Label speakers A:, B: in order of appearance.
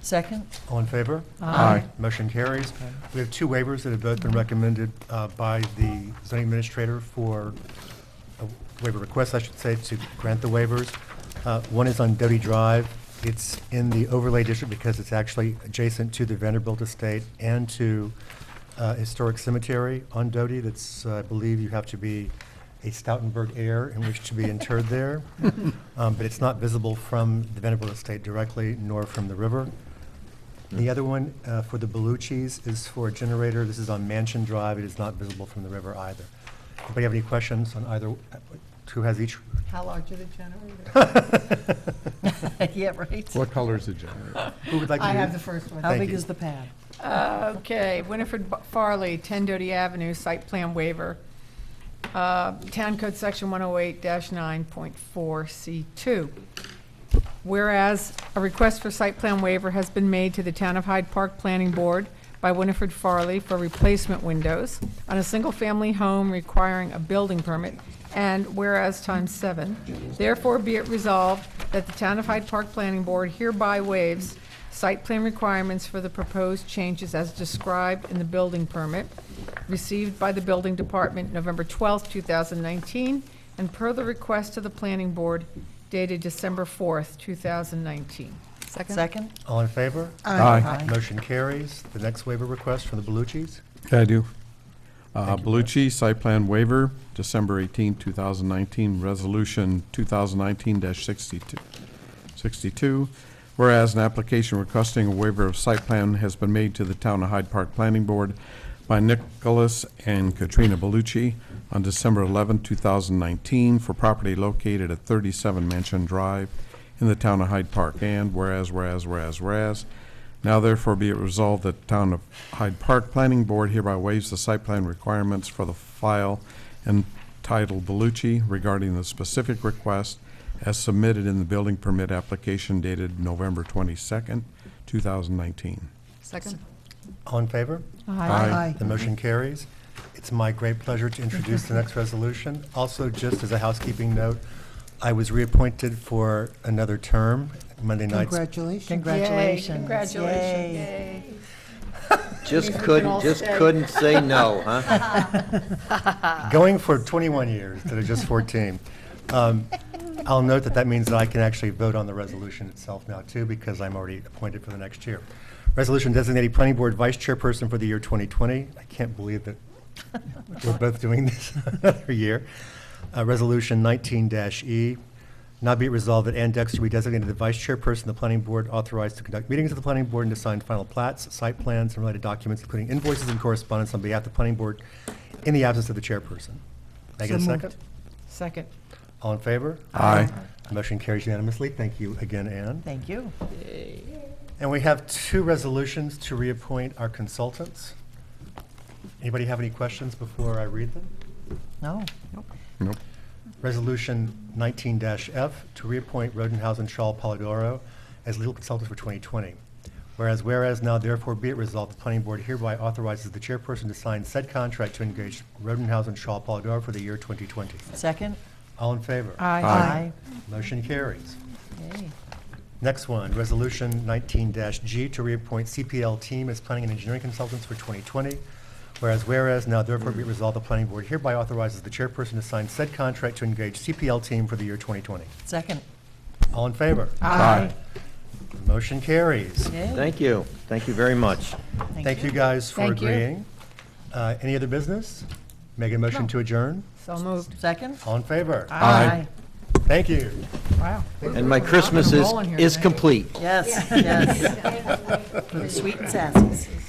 A: Second?
B: All in favor?
A: Aye.
B: Motion carries. We have two waivers that have both been recommended uh, by the zoning administrator for uh, waiver requests, I should say, to grant the waivers. Uh, One is on Doty Drive. It's in the overlay district because it's actually adjacent to the Vanderbilt Estate and to uh, Historic Cemetery on Doty. That's, uh, I believe you have to be a Stoutenburg heir in which to be interred there. Um, But it's not visible from the Vanderbilt Estate directly, nor from the river. The other one uh, for the Beluchis is for a generator. This is on Mansion Drive. It is not visible from the river either. Anybody have any questions on either, uh, who has each?
A: How large are the generators? Yeah, right?
C: What color is the generator?
B: Who would like to?
D: I
B: do-
D: have the first one.
A: How
B: Thank
A: big
B: you.
A: is the pad?
D: Okay, Winifred B- Farley, 10 Doty Avenue, site plan waiver. Uh, Town Code Section 108-9.4C2. Whereas a request for site plan waiver has been made to the Town of Hyde Park Planning Board by Winifred Farley for replacement windows on a single-family home requiring a building permit, and whereas times seven, therefore be it resolved that the Town of Hyde Park Planning Board hereby waives site plan requirements for the proposed changes as described in the building permit received by the Building Department November 12, 2019, and per the request to the Planning Board dated December 4th, 2019.
A: Second?
B: All in favor?
C: Aye.
A: Aye.
B: Motion carries. The next waiver request from the Beluchis.
C: I do. Uh, Belucci, site plan waiver, December 18, 2019, resolution 2019-62. 62, whereas an application requesting a waiver of site plan has been made to the Town of Hyde Park Planning Board by Nicholas and Katrina Belucci on December 11, 2019, for property located at 37 Mansion Drive in the Town of Hyde Park, and whereas, whereas, whereas, whereas, now therefore be it resolved that the Town of Hyde Park Planning Board hereby waives the site plan requirements for the file entitled Belucci regarding the specific request as submitted in the building permit application dated November 22nd, 2019.
D: Second.
B: All in favor?
C: Aye.
B: The motion carries. It's my great pleasure to introduce the next resolution. Also, just as a housekeeping note, I was reappointed for another term, Monday nights.
A: Congratulations.
D: Yay,
A: Congratulations.
D: Congratulations.
A: Yay.
D: Yay.
E: Just
D: Means we can all
E: couldn't, just
D: stay.
E: couldn't say no, huh?
B: Going for 21 years instead of just 14. Um, I'll note that that means that I can actually vote on the resolution itself now, too, because I'm already appointed for the next year. Resolution designating Planning Board Vice Chairperson for the year 2020. I can't believe that we're both doing this another year. Uh, Resolution 19-E. Now be it resolved that Ann Dexter be designated the Vice Chairperson of the Planning Board, authorized to conduct meetings of the Planning Board and to sign final plats, site plans, and related documents, including invoices and correspondence on behalf of the Planning Board in the absence of the Chairperson. May I get a
A: So moved.
B: second?
D: Second.
B: All in favor?
C: Aye.
B: Motion carries unanimously. Thank you again, Ann.
A: Thank you.
B: And we have two resolutions to reappoint our consultants. Anybody have any questions before I read them?
A: No.
C: Nope.
B: Resolution 19-F to reappoint Rodenhouse and Shaw Polidoro as legal consultants for 2020. Whereas, whereas, now therefore be it resolved, the planning board hereby authorizes the chairperson to sign said contract to engage Rodenhouse and Shaw Polidoro for the year 2020.
A: Second?
B: All in favor?
C: Aye.
B: Motion carries.
A: Yay.
B: Next one, Resolution 19-G to reappoint CPL Team as Planning and Engineering Consultants for 2020. Whereas, whereas, now therefore be it resolved, the Planning Board hereby authorizes the chairperson to sign said contract to engage CPL Team for the year 2020.
A: Second?
B: All in favor?
C: Aye.
B: Motion carries.
A: Yay.
E: Thank you. Thank you very much.
B: Thank you guys for
D: Thank you.
B: agreeing. Uh, Any other business? Make a motion
D: No.
B: to adjourn?
D: So moved.
A: Second?
B: All in favor?
C: Aye.
B: Thank you.
D: Wow.
E: And my Christmas is, is complete.
A: Yes, yes. Sweet and sassy.